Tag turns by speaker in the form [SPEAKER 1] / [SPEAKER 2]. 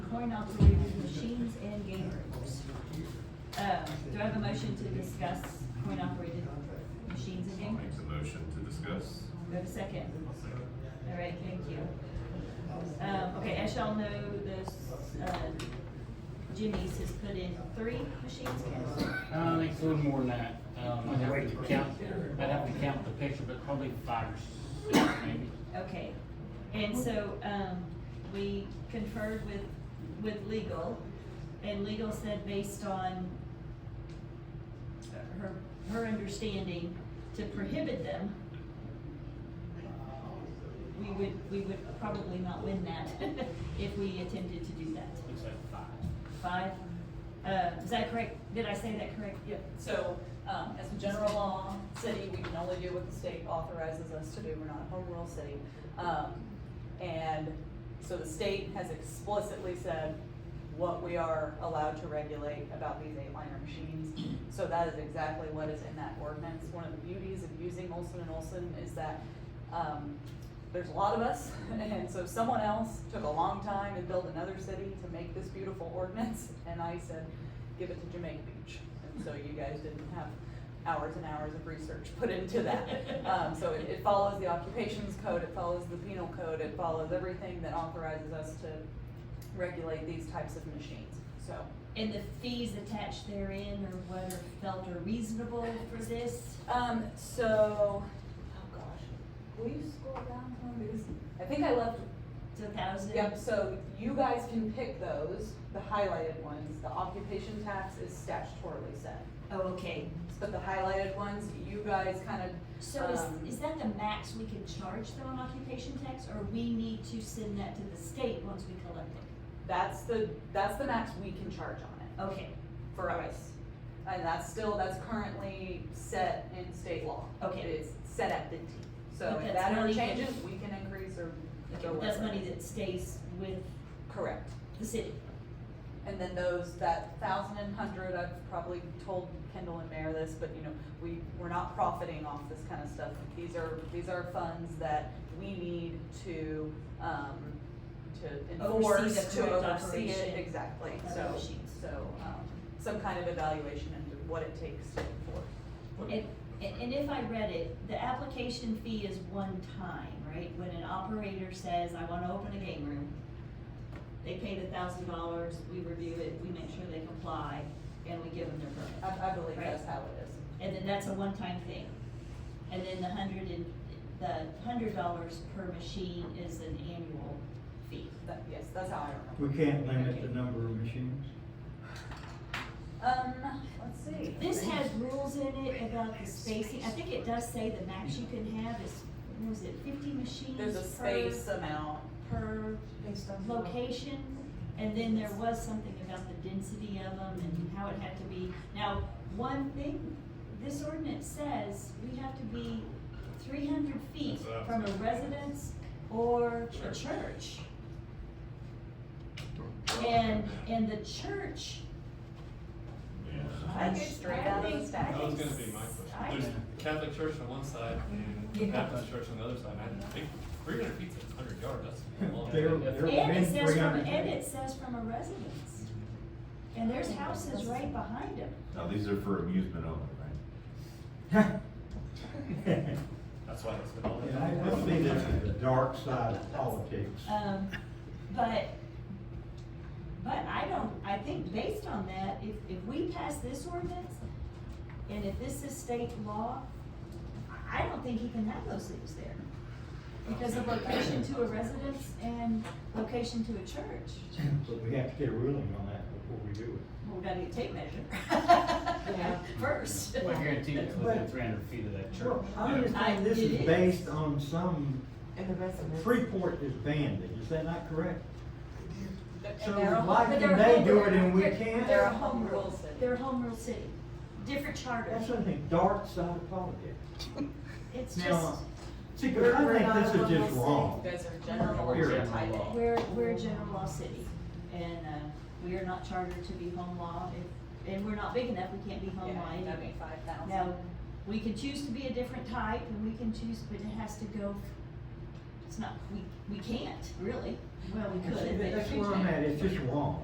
[SPEAKER 1] coin operated machines and game rooms. Um, do I have a motion to discuss coin operated machines and
[SPEAKER 2] I'll
[SPEAKER 1] game
[SPEAKER 2] make
[SPEAKER 1] rooms?
[SPEAKER 2] the motion to discuss.
[SPEAKER 1] Do I have a second? All right, thank you. Um, okay, as y'all know, this, uh, Jimmy's has put in three machines, Ken?
[SPEAKER 3] Uh, I think it's a little more than that. Um, I'd have to count, I'd have to count the picture, but probably five or six maybe.
[SPEAKER 1] Okay, and so, um, we conferred with, with legal, and legal said based on her, her understanding to prohibit them, we would, we would probably not win that if we attempted to do that.
[SPEAKER 3] Looks like five.
[SPEAKER 1] Five, uh, is that correct? Did I say that correct?
[SPEAKER 4] Yeah, so, um, as a general law, city, we can only do what the state authorizes us to do, we're not a home rule city. Um, and so the state has explicitly said what we are allowed to regulate about these eight liner machines. So that is exactly what is in that ordinance, one of the beauties of using Olson and Olson is that, um, there's a lot of us, and so someone else took a long time to build another city to make this beautiful ordinance, and I said, give it to Jamaica Beach. And so you guys didn't have hours and hours of research put into that. Um, so it, it follows the occupations code, it follows the penal code, it follows everything that authorizes us to regulate these types of machines, so.
[SPEAKER 1] And the fees attached therein or what are felt are reasonable for this?
[SPEAKER 4] Um, so, oh gosh, will you scroll down one, because I think I left
[SPEAKER 1] Two thousand?
[SPEAKER 4] Yep, so you guys can pick those, the highlighted ones, the occupation tax is statutorily set.
[SPEAKER 1] Oh, okay.
[SPEAKER 4] But the highlighted ones, you guys kind of,
[SPEAKER 1] So
[SPEAKER 4] Um,
[SPEAKER 1] is, is that the max we can charge though on occupation tax, or we need to send that to the state once we collect it?
[SPEAKER 4] that's the, that's the max we can charge on it,
[SPEAKER 1] Okay,
[SPEAKER 4] for us. And that's still, that's currently set in state law.
[SPEAKER 1] Okay.
[SPEAKER 4] It's set at fifteen, so
[SPEAKER 1] But that's
[SPEAKER 4] if that ever
[SPEAKER 1] money that-
[SPEAKER 4] changes, we can increase or
[SPEAKER 1] okay,
[SPEAKER 4] go
[SPEAKER 1] that's
[SPEAKER 4] whatever.
[SPEAKER 1] money that stays with
[SPEAKER 4] Correct.
[SPEAKER 1] the city.
[SPEAKER 4] And then those, that thousand and hundred, I've probably told Kendall and Mayor this, but you know, we, we're not profiting off this kind of stuff. These are, these are funds that we need to, um, to
[SPEAKER 1] Oversee the
[SPEAKER 4] enforce, to
[SPEAKER 1] correct
[SPEAKER 4] oversee
[SPEAKER 1] operation
[SPEAKER 4] it, exactly,
[SPEAKER 1] of the
[SPEAKER 4] so,
[SPEAKER 1] machines.
[SPEAKER 4] so, um, some kind of evaluation into what it takes to enforce.
[SPEAKER 1] And, and and if I read it, the application fee is one time, right? When an operator says, I wanna open a game room, they pay the thousand dollars, we review it, we make sure they comply, and we give them their permit.
[SPEAKER 4] I, I believe
[SPEAKER 1] Right.
[SPEAKER 4] that's how it is.
[SPEAKER 1] And then that's a one-time thing. And then the hundred and, the hundred dollars per machine is an annual fee.
[SPEAKER 4] That, yes, that's how I
[SPEAKER 5] We
[SPEAKER 4] remember.
[SPEAKER 5] can't limit the number of machines.
[SPEAKER 4] Um, let's see.
[SPEAKER 1] This has rules in it about the spacing. I think it does say the max you can have is, what was it fifty machines?
[SPEAKER 4] There's a space amount.
[SPEAKER 1] Per, per
[SPEAKER 6] Based on the-
[SPEAKER 1] location. And then there was something about the density of them and how it had to be. Now, one thing, this ordinance says we have to be three hundred feet
[SPEAKER 2] That's what I was
[SPEAKER 1] from a
[SPEAKER 2] thinking.
[SPEAKER 1] residence or a
[SPEAKER 2] Church.
[SPEAKER 1] church. And, and the church,
[SPEAKER 2] Yeah.
[SPEAKER 1] I
[SPEAKER 6] I'm
[SPEAKER 1] think,
[SPEAKER 6] straight
[SPEAKER 1] I
[SPEAKER 6] out of the
[SPEAKER 1] think, I
[SPEAKER 6] back.
[SPEAKER 2] That was
[SPEAKER 1] think
[SPEAKER 2] gonna be my
[SPEAKER 1] I-
[SPEAKER 2] question. There's the Catholic church on one side and Baptist church on the other side. and I think three hundred feet's a hundred yards, that's a long.
[SPEAKER 5] There,
[SPEAKER 2] way.
[SPEAKER 5] there have
[SPEAKER 1] And
[SPEAKER 5] been
[SPEAKER 1] it says
[SPEAKER 5] three
[SPEAKER 1] from,
[SPEAKER 5] hundred.
[SPEAKER 1] and it says from a residence. And there's houses right behind them.
[SPEAKER 7] Now, these are for amusement only, right?
[SPEAKER 2] That's why it's been all.
[SPEAKER 5] And I will see this is the dark side of politics.
[SPEAKER 1] Um, but, but I don't, I think based on that, if, if we pass this ordinance, and if this is state law, I- I don't think he can have those things there. Because of location to a residence and location to a church,
[SPEAKER 5] But we have to get a ruling on that before we do
[SPEAKER 1] well, we gotta get tape measure.
[SPEAKER 6] Yeah.
[SPEAKER 1] First.
[SPEAKER 3] Well, I guarantee it's within three hundred feet of that
[SPEAKER 5] it.
[SPEAKER 3] church.
[SPEAKER 5] I understand this is based on some,
[SPEAKER 6] And the residents.
[SPEAKER 5] Freeport is banned, it. is that not correct?
[SPEAKER 4] And
[SPEAKER 5] So
[SPEAKER 4] they're all-
[SPEAKER 5] why
[SPEAKER 1] but
[SPEAKER 5] can
[SPEAKER 1] they're
[SPEAKER 5] they do it and we
[SPEAKER 1] home-
[SPEAKER 5] can't?
[SPEAKER 4] They're a home rule city.
[SPEAKER 1] They're a home rule city, different charter,
[SPEAKER 5] That's the thing, dark side of politics.
[SPEAKER 1] it's
[SPEAKER 5] Now,
[SPEAKER 1] just,
[SPEAKER 5] See, 'cause
[SPEAKER 6] We're- we're
[SPEAKER 5] I
[SPEAKER 6] not
[SPEAKER 5] think this is
[SPEAKER 6] a
[SPEAKER 5] just
[SPEAKER 6] local
[SPEAKER 4] You
[SPEAKER 5] wrong.
[SPEAKER 4] guys are general.
[SPEAKER 3] We're
[SPEAKER 4] or
[SPEAKER 3] general
[SPEAKER 4] type A.
[SPEAKER 3] law.
[SPEAKER 1] we're, we're a general law city, and, uh, we are not chartered to be home law, If- and we're not big enough, we can't be home law
[SPEAKER 4] Yeah,
[SPEAKER 1] anyway.
[SPEAKER 4] five thousand.
[SPEAKER 1] Now, we can choose to be a different type, and we can choose, but it has to go
[SPEAKER 8] it's not, we, we can't, really, well, we could.
[SPEAKER 1] That's
[SPEAKER 8] but-
[SPEAKER 1] that's where I'm at, it's just wrong.